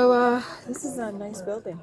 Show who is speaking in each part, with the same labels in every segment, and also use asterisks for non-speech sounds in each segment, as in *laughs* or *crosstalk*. Speaker 1: Uh, this is a nice building.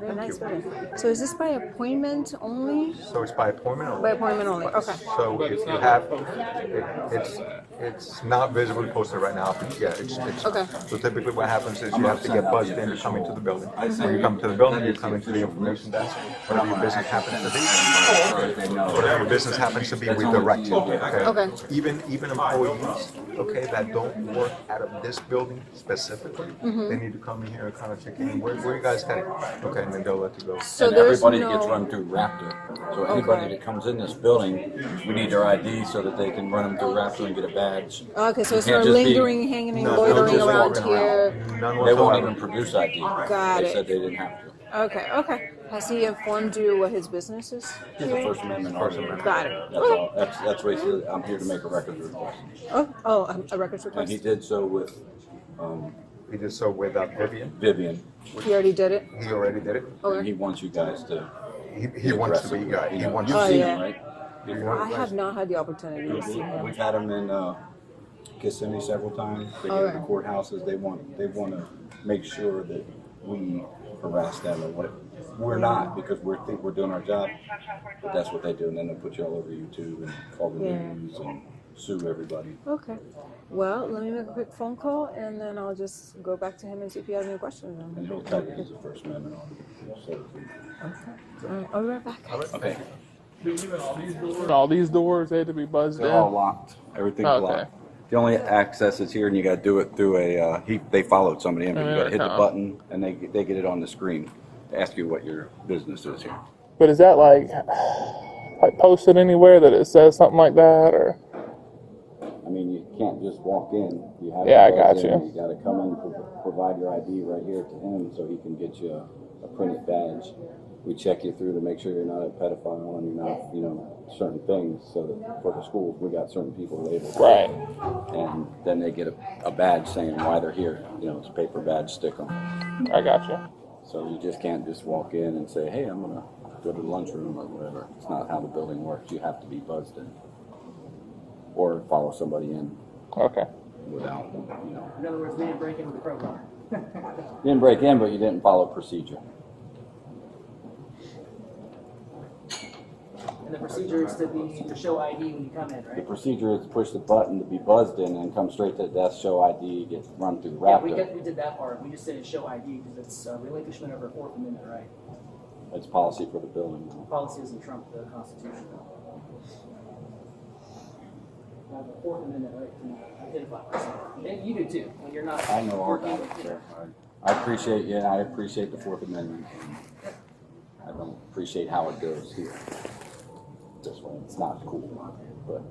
Speaker 1: Very nice building. So is this by appointment only?
Speaker 2: So it's by appointment
Speaker 1: By
Speaker 2: only?
Speaker 1: appointment only, okay.
Speaker 2: So if you have, it- it's, it's not visibly posted right now, but yeah, it's, it's.
Speaker 1: Okay.
Speaker 2: So typically what happens is you have to get buzzed in to come into the building. When you come to the building, you come into the information desk, whatever your business happens to be. Whatever your business happens to be, we direct you, okay?
Speaker 1: Okay.
Speaker 2: Even, even employees, okay, that don't work out of this building specifically,
Speaker 1: Mm-hmm.
Speaker 2: they need to come in here and kind of check in, where, where you guys headed? Okay, and then they'll let you go.
Speaker 1: So
Speaker 3: and
Speaker 1: there's
Speaker 3: everybody gets
Speaker 1: no,
Speaker 3: run through Raptor. So anybody
Speaker 1: Okay.
Speaker 3: that comes in this building, we need their ID so that they can run them through Raptor and get a badge.
Speaker 1: okay, so it's
Speaker 3: Can't
Speaker 1: not
Speaker 3: just be-
Speaker 1: lingering, hanging,
Speaker 2: No,
Speaker 1: loitering
Speaker 2: just
Speaker 1: around
Speaker 2: walking
Speaker 1: here.
Speaker 2: None
Speaker 3: They won't
Speaker 2: whatsoever.
Speaker 3: even produce ID.
Speaker 1: Got
Speaker 3: they
Speaker 1: it.
Speaker 3: said they didn't have to.
Speaker 1: Okay, okay. Has he informed you what his business is?
Speaker 3: It's a First Amendment argument.
Speaker 1: Got it.
Speaker 3: That's all. That's, that's what he said. I'm here to make a records request.
Speaker 1: Oh, oh, um, a records
Speaker 3: And he
Speaker 1: request?
Speaker 3: did so with um,
Speaker 2: He did so with uh, Vivian.
Speaker 3: Vivian.
Speaker 1: He already did it?
Speaker 2: He already did it.
Speaker 3: And
Speaker 1: Okay.
Speaker 3: he wants you guys to.
Speaker 2: He, he wants to be.
Speaker 3: aggressive.
Speaker 2: Uh,
Speaker 3: You
Speaker 2: he
Speaker 3: know,
Speaker 2: wants.
Speaker 3: You've
Speaker 1: Oh,
Speaker 3: seen
Speaker 1: yeah.
Speaker 3: him, right?
Speaker 2: he
Speaker 1: I
Speaker 2: wants
Speaker 1: have not had the opportunity to see him.
Speaker 3: We've had them in uh, Kissimmee several times. They go to the
Speaker 1: Alright.
Speaker 3: courthouses. They want they want to make sure that we harass them and what we're not because we are think we're doing our job, but that's what they do, and then they will put you all over YouTube and call the
Speaker 1: Yeah.
Speaker 3: news and sue everybody.
Speaker 1: Okay. Well, let me make a quick phone call and then I'll just go back to him and see if he has any questions.
Speaker 3: And he'll tell you he's a First Amendment on so,
Speaker 1: All right, I'll be right back.
Speaker 3: Okay,
Speaker 4: All these doors they had to be buzzed in.
Speaker 3: they're all locked. Everything's
Speaker 4: Okay.
Speaker 3: locked. The only access is here, and you got to do it through a. Uh, he they followed somebody in, but you
Speaker 4: Yeah,
Speaker 3: got to hit the
Speaker 4: uh-uh.
Speaker 3: button, and they they get it on the screen to ask you what your business is here.
Speaker 4: But is that like like posted anywhere that it says something like that or
Speaker 3: I mean, you can't just walk in. You have
Speaker 4: Yeah, I
Speaker 3: to
Speaker 4: got
Speaker 3: go
Speaker 4: you.
Speaker 3: in. You got to come in, pro- provide your ID right here to him so he can get you a, a printed badge. We check you through to make sure you're not a pedophile and you're not, you know, certain things. So that for the schools, we got certain people labeled.
Speaker 4: right?
Speaker 3: And then they get a, a badge saying why they're here. You know, it's a paper badge, stick 'em.
Speaker 4: I got you.
Speaker 3: So you just can't just walk in and say, hey, I'm going to go to the lunchroom or whatever. It's not how the building works. You have to be buzzed in or follow somebody in
Speaker 4: Okay.
Speaker 3: without, you know.
Speaker 5: In other words, we didn't break into the program.
Speaker 3: You didn't break in, but you didn't follow procedure.
Speaker 5: And the procedure is to be, to show ID when you come in,
Speaker 3: The
Speaker 5: right?
Speaker 3: procedure is to push the button to be buzzed in and come straight to the desk, show ID, get run through
Speaker 5: Yeah, we
Speaker 3: Raptor.
Speaker 5: did, we did that part. We just said it's show ID because it's uh, relinquishment of our Fourth Amendment right.
Speaker 3: It's policy for the building.
Speaker 5: Policy doesn't trump the Constitution. I have a Fourth Amendment right to identify myself. And you do too, when you're not.
Speaker 3: I know all
Speaker 5: working.
Speaker 3: about it, sir. I I appreciate you, and I appreciate the Fourth Amendment. I don't appreciate how it goes here. This way, it's not cool, but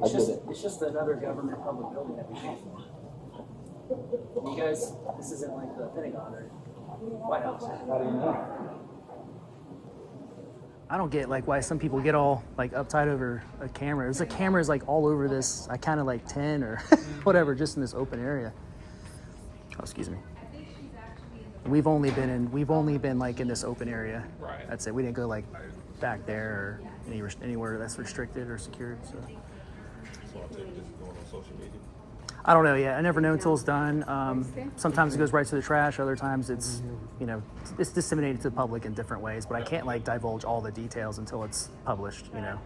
Speaker 3: I
Speaker 5: It's
Speaker 3: did
Speaker 5: just,
Speaker 3: it.
Speaker 5: it's just another government public building that we pay for. You guys, this isn't like the Pentagon or White House. I don't get like why some people get all like uptight over a camera. There's a cameras like all over this. I kind of like ten or *laughs* whatever, just in this open area. Oh, excuse me. We've only been in. We've only been like in this open area. Right. That's it. We didn't go like back there or any, res- anywhere that's restricted or secured. So. I don't know yet. I never know until it's done. Um, sometimes it goes right to the trash. Other times it's, you know, it's disseminated to the public in different ways. But I can't like divulge all the details until it's published. You know.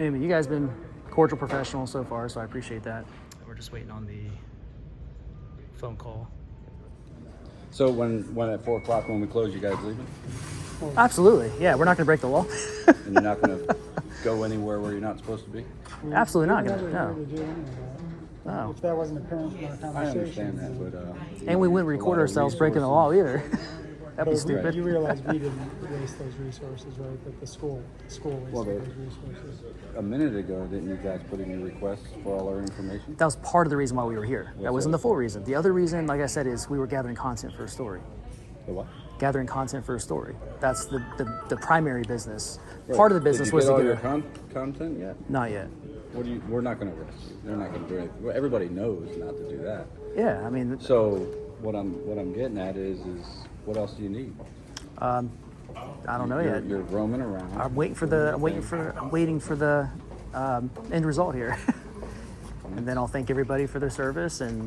Speaker 5: Anyway, you guys been cordial professional so far, so I appreciate that. We're just waiting on the phone call.
Speaker 3: So when, when at four o'clock, when we close, you guys leaving?
Speaker 5: Absolutely. Yeah, we're not going to break the law.
Speaker 3: And you're not *laughs* gonna go anywhere where you're not supposed to be?
Speaker 5: Absolutely not going
Speaker 6: Never
Speaker 5: to.
Speaker 6: really
Speaker 5: No. Oh.
Speaker 6: do anything.
Speaker 5: No.
Speaker 6: If that wasn't apparent from our
Speaker 3: I
Speaker 6: conversation.
Speaker 3: understand that, but, uh.
Speaker 5: And we wouldn't record ourselves breaking the law either. *laughs* That'd be
Speaker 6: But we-
Speaker 5: stupid.
Speaker 6: you realize we didn't waste those resources, right? That the school, the school
Speaker 3: Well,
Speaker 6: wasted
Speaker 3: they-
Speaker 6: those resources.
Speaker 3: A minute ago, didn't you guys put in your requests for all our information?
Speaker 5: That was part of the reason why we were here. That
Speaker 3: Yes,
Speaker 5: wasn't
Speaker 3: sir.
Speaker 5: the full reason. The other reason, like I said, is we were gathering content for a story.
Speaker 3: The what?
Speaker 5: Gathering content for a story. That's the, the, the primary business. Part of the business
Speaker 3: Did you
Speaker 5: was
Speaker 3: get
Speaker 5: to
Speaker 3: all
Speaker 5: get
Speaker 3: your
Speaker 5: a,
Speaker 3: con- content yet?
Speaker 5: not yet.
Speaker 3: What do you, we're not gonna arrest you. They're not gonna do anything. Well, everybody knows not to do that.
Speaker 5: Yeah, I mean,
Speaker 3: So what I'm, what I'm getting at is, is what else do you need?
Speaker 5: Um, I don't know
Speaker 3: You're,
Speaker 5: yet.
Speaker 3: you're roaming around.
Speaker 5: I'm waiting for the. I'm waiting for. I'm waiting for *laughs* the um, end result here, and then I'll thank everybody for their service and